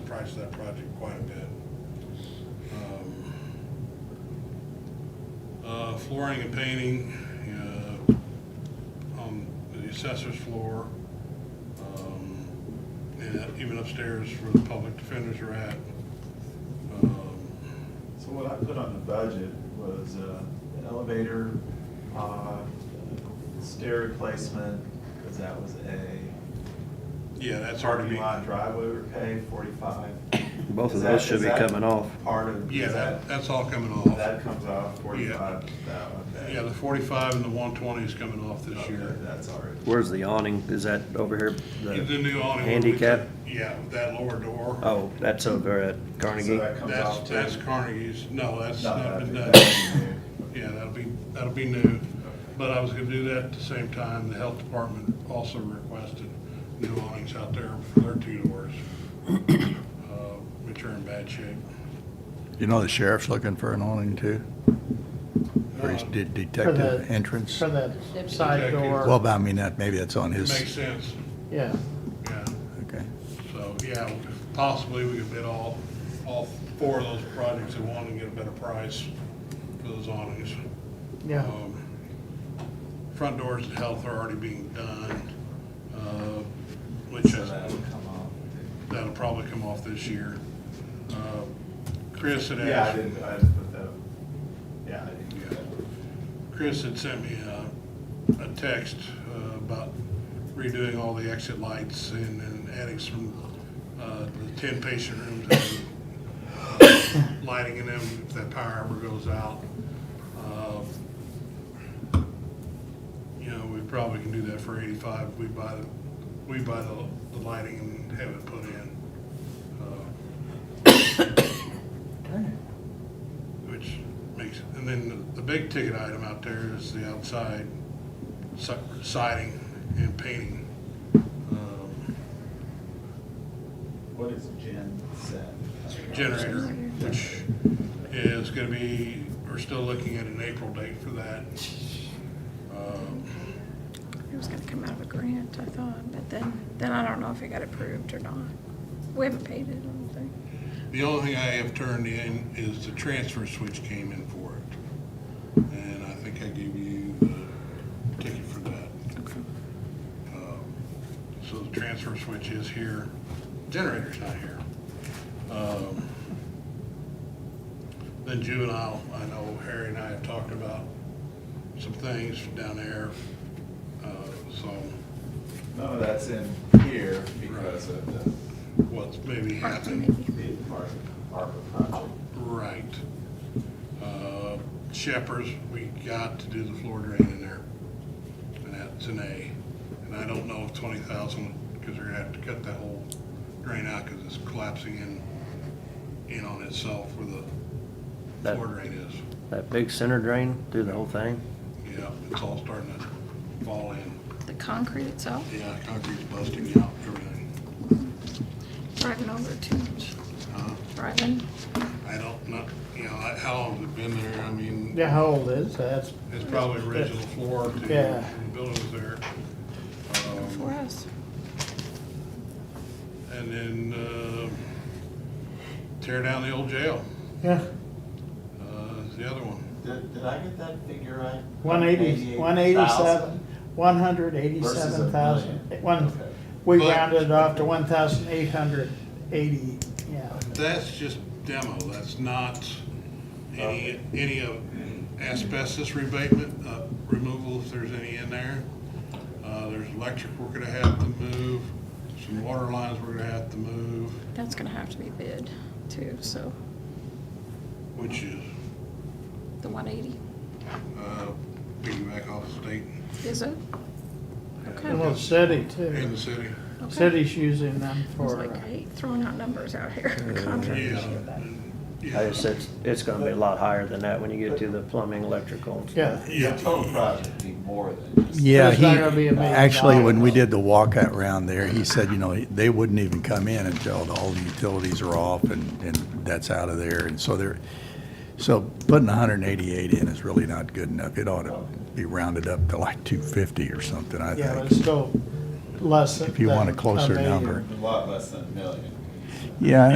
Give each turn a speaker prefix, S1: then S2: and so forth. S1: price of that project quite a bit. Um, uh, Flooring and painting, uh, on the assessor's floor, um, and even upstairs where the public defenders are at. Um,
S2: So what I put on the budget was uh, the elevator, uh, stair replacement, because that was a.
S1: Yeah, that's hard to be.
S2: Parking lot driveway repair, forty-five.
S3: Both of
S2: Is that-
S3: those should
S2: is
S3: be
S2: that
S3: coming off.
S2: Part of,
S1: Yeah,
S2: is
S1: that,
S2: that,
S1: that's all coming
S2: that
S1: off.
S2: comes off forty-five, that one. that-
S1: Yeah, the forty-five and the one twenty is coming off this
S2: okay,
S1: year.
S2: That's already.
S3: Where's the awning? Is that over here?
S1: The new awning. would be-
S3: Handicap?
S1: Yeah, with that lower door.
S3: Oh, that's over at
S2: So
S3: Carnegie.
S2: that comes off
S1: That's,
S2: too.
S1: that's Carnegie's, no, that's
S2: No,
S1: not been done.
S2: that'd be- that'd
S1: Yeah, that'll be, that'll be new, but I was gonna do that at the same time, the health department also requested new awnings out there for their two doors, uh, which are in bad shape.
S4: You know, the sheriff's looking for an awning too, for his
S1: Uh,
S4: de-
S5: For the-
S4: detective entrance.
S5: For the side
S1: Detective.
S5: door.
S4: Well, but I mean, that, maybe that's on
S1: It
S4: his,
S1: makes sense,
S5: Yeah,
S1: yeah,
S4: okay.
S1: so, yeah, possibly we could bid all, all four of those projects at one and get a better price for those awnings.
S5: yeah.
S1: Um, Front doors and health are already being done, uh, which
S2: So
S1: is,
S2: that would come off.
S1: that'll probably come off this year. Uh, Chris had
S2: Yeah, I
S1: asked,
S2: didn't, I just put that, yeah, I didn't do that.
S1: Chris had sent me a, a text uh, about redoing all the exit lights and and adding some, uh, the ten patient rooms and lighting in them if that power ever goes out. Uh, you know, we probably can do that for eighty-five, we buy the, we buy the, the lighting and have it put in. uh, Which makes, and then the- the big ticket item out there is the outside si- siding and painting. Um,
S2: What is Jen said?
S1: Generator, which is gonna be, we're still looking at an April date for that. Um,
S6: It was gonna come out of a grant, I thought, but then, then I don't know if it got approved or not. We haven't paid it, I don't think.
S1: The only thing I have turned in is the transfer switch came in for it. And I think I gave you the ticket for that.
S6: Okay.
S1: Um, So the transfer switch is here, generator's not here. Um, Then juvenile, I know Harry and I have talked about some things down there, uh, so
S2: No, that's in here because of the,
S1: what's maybe
S6: Parts,
S1: happening.
S6: maybe.
S2: the part- ARPA project.
S1: Right. Uh, Shepherd's, we got to do the floor drain in there. And that's an A. And I don't know if twenty thousand, because they're gonna have to cut that whole drain out because it's collapsing in, in on itself where the
S3: That-
S1: floor drain is.
S3: That big center drain through the whole thing?
S1: Yeah, it's all starting to fall in.
S6: The concrete itself,
S1: Yeah, concrete's busting out, everything.
S6: driving over it too much,
S1: Uh,
S6: driving.
S1: I don't, not, you know, I- how long has it been there? I mean.
S5: Yeah, how old is that?
S1: It's probably original floor to the
S5: Yeah.
S1: buildings there. Um,
S6: For us.
S1: And then uh, tear down the old jail
S5: Yeah,
S1: uh, is the other one.
S2: Did, did I get that figure right?
S5: one eighty, one eighty-seven, one hundred
S2: Versus a
S5: eighty-seven
S2: million.
S5: thousand. One,
S2: Okay.
S5: we
S1: But-
S5: rounded it off to one thousand eight hundred eighty, yeah.
S1: That's just demo, that's not any, any of asbestos rebatement, uh, removal if there's any in there. Uh, There's electric we're gonna have to move, some water lines we're gonna have to move,
S6: That's gonna have to be bid too, so
S1: which is
S6: the one eighty,
S1: uh, piggyback off the state
S6: is it? Okay.
S5: And the city
S1: and
S5: too.
S1: the city.
S6: Okay.
S5: City's using them
S6: I was
S5: for,
S6: like,
S5: uh,
S6: I hate throwing out numbers out here.
S1: Yeah.
S6: Contractors.
S3: I just said, it's gonna be a lot higher than that when you get to the plumbing, electrical and stuff.
S5: yeah.
S2: The
S1: Yeah,
S2: total project would be more than just.
S4: Yeah,
S5: It's
S4: he,
S5: not gonna be a million
S4: actually, when we
S5: dollars.
S4: did the walkout round there, he said, you know, they wouldn't even come in until all the utilities are off and, and that's out of there. And so they're, so putting hundred and eighty-eight in is really not good enough. It ought to be rounded up to like two fifty or something, I
S5: Yeah, but it's
S4: think.
S5: still less than.
S4: If you want a
S5: than
S4: closer
S5: million.
S4: number.
S2: A lot less than a million.
S4: Yeah,